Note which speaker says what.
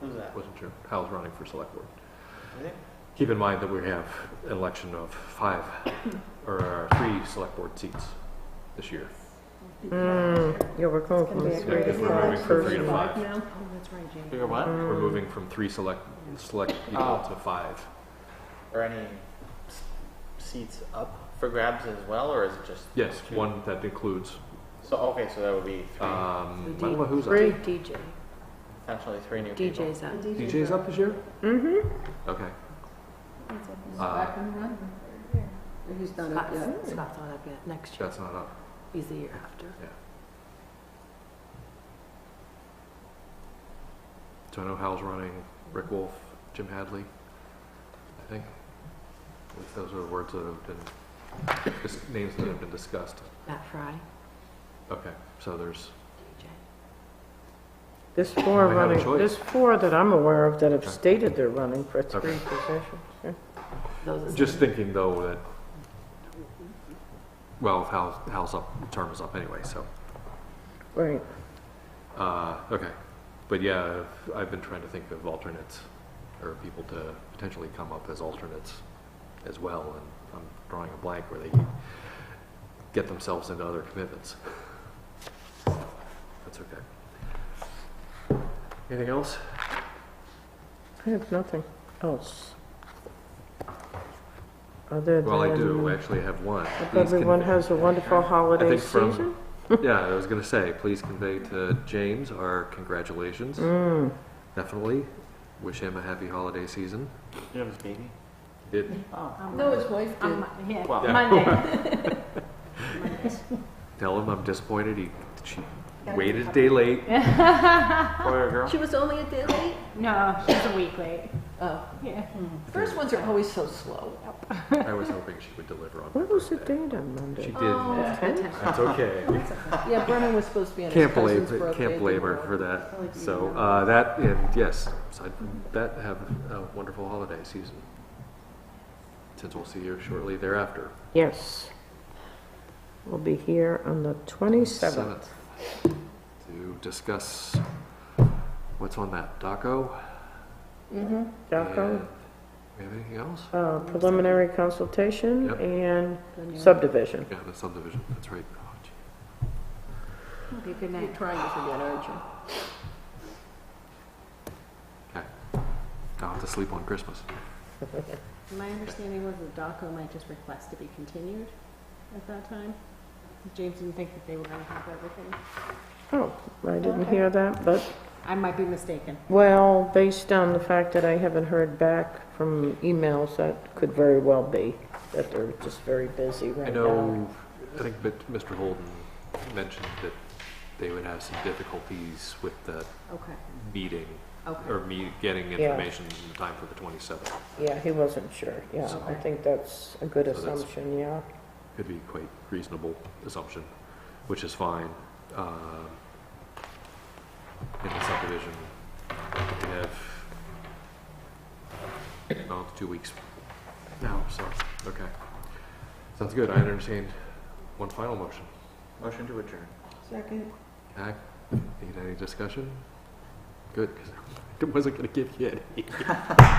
Speaker 1: Who's that?
Speaker 2: Wasn't sure. Hal's running for select board.
Speaker 1: Really?
Speaker 2: Keep in mind that we have an election of five, or uh, three select board seats this year.
Speaker 3: Mm, yeah, we're going from
Speaker 4: It's
Speaker 2: gonna
Speaker 3: three
Speaker 2: be
Speaker 3: to
Speaker 2: a great if we're moving
Speaker 3: five
Speaker 2: from three to
Speaker 3: person.
Speaker 2: five.
Speaker 4: now?
Speaker 5: Oh, that's right, Jamie.
Speaker 1: Bigger what?
Speaker 2: We're moving from three select, select people
Speaker 1: Oh.
Speaker 2: to five.
Speaker 1: Are any s- seats up for grabs as well, or is it just
Speaker 2: Yes, one that includes,
Speaker 1: So okay, so that would be three,
Speaker 2: um,
Speaker 5: The
Speaker 2: I don't know who's up.
Speaker 3: Three.
Speaker 5: DJ.
Speaker 1: potentially three new people.
Speaker 5: DJ's up.
Speaker 2: DJ's up this year?
Speaker 3: Mm-hmm.
Speaker 2: Okay.
Speaker 4: He's
Speaker 2: Uh,
Speaker 4: back and running. He's not up yet.
Speaker 5: Scott's Scott's not up yet. Next year.
Speaker 2: That's not up.
Speaker 5: He's the year after.
Speaker 2: So I know Hal's running, Rick Wolf, Jim Hadley, I think. At least Those are the words that have been, just names that have been discussed.
Speaker 5: Matt Fry,
Speaker 2: Okay, so there's,
Speaker 5: DJ.
Speaker 3: There's four
Speaker 2: We have a
Speaker 3: running,
Speaker 2: choice.
Speaker 3: there's four that I'm aware of that have
Speaker 2: Okay.
Speaker 3: stated they're running for
Speaker 2: Okay.
Speaker 3: three positions. yeah.
Speaker 5: Those are
Speaker 2: just
Speaker 5: some-
Speaker 2: thinking though that, well, Hal's, Hal's up, term is up anyway, so.
Speaker 3: Right,
Speaker 2: Uh, okay, but yeah, I've- I've been trying to think of alternates, or people to potentially come up as alternates as well, and I'm drawing a blank where they get themselves into other commitments. That's okay. Anything else?
Speaker 3: I have nothing else. Other than.
Speaker 2: Well, I do actually have one.
Speaker 3: Hope
Speaker 2: Please
Speaker 3: everyone
Speaker 2: convey-
Speaker 3: has a wonderful
Speaker 2: I
Speaker 3: holiday
Speaker 2: think from-
Speaker 3: season.
Speaker 2: Yeah, I was gonna say, please convey to James our congratulations,
Speaker 3: Mm,
Speaker 2: definitely. Wish him a happy holiday season.
Speaker 1: Jim's baby.
Speaker 2: It,
Speaker 1: Oh.
Speaker 4: No, his wife did.
Speaker 5: Um, yeah,
Speaker 1: Well-
Speaker 5: Monday.
Speaker 2: Tell him I'm disappointed. He she waited a day late.
Speaker 1: Boy or girl?
Speaker 4: She was only a day late?
Speaker 5: No, she's a week late.
Speaker 4: Oh,
Speaker 5: Yeah.
Speaker 4: first ones are always so slow.
Speaker 2: I was hoping she would deliver on. my
Speaker 3: what was the
Speaker 2: birthday.
Speaker 3: date on
Speaker 2: She
Speaker 3: Monday?
Speaker 2: did.
Speaker 4: Oh,
Speaker 2: That's okay.
Speaker 4: Yeah, Brennan was supposed to be on his
Speaker 2: Can't blame
Speaker 4: cousin's
Speaker 2: her.
Speaker 4: birthday.
Speaker 2: Can't blame her
Speaker 4: dinner.
Speaker 2: for that. So uh, that and yes, aside from that, have a wonderful holiday season. Since we'll see you shortly thereafter.
Speaker 3: Yes. We'll be here on the twenty-seventh.
Speaker 2: Seventh, To discuss what's on that DACO.
Speaker 3: DACO,
Speaker 4: Mm-hmm.
Speaker 2: and- We have anything else?
Speaker 3: uh, preliminary consultation
Speaker 2: Yep.
Speaker 3: and
Speaker 4: Then you're-
Speaker 3: subdivision.
Speaker 2: Yeah, the subdivision. That's right. Oh, gee.
Speaker 5: Be a good
Speaker 4: You're
Speaker 5: night.
Speaker 4: trying to forget, aren't you?
Speaker 2: I'll have to sleep on Christmas.
Speaker 5: My understanding was that DACO might just request to be continued at that time. James didn't think that they were gonna have everything.
Speaker 3: Oh, I didn't
Speaker 4: Okay.
Speaker 3: hear that, but,
Speaker 5: I might be mistaken.
Speaker 3: well, based on the fact that I haven't heard back from emails, that could very well be, that they're just very busy
Speaker 2: I
Speaker 3: right now.
Speaker 2: know, I think that Mr. Holden mentioned that they would have some difficulties with the
Speaker 5: Okay,
Speaker 2: meeting,
Speaker 5: okay.
Speaker 2: or me getting
Speaker 3: Yeah.
Speaker 2: information in time for the 27th.
Speaker 3: Yeah, he wasn't sure, yeah, I
Speaker 2: Okay.
Speaker 3: think that's a good
Speaker 2: So that's-
Speaker 3: assumption, yeah.
Speaker 2: Could be quite reasonable assumption, which is fine. Um, In the subdivision, we have about two weeks now, so, okay. Sounds good. I understand one final motion.
Speaker 1: Motion to adjourn.
Speaker 4: Second.
Speaker 2: Hack, need any discussion? Good, because I wasn't going to give you any.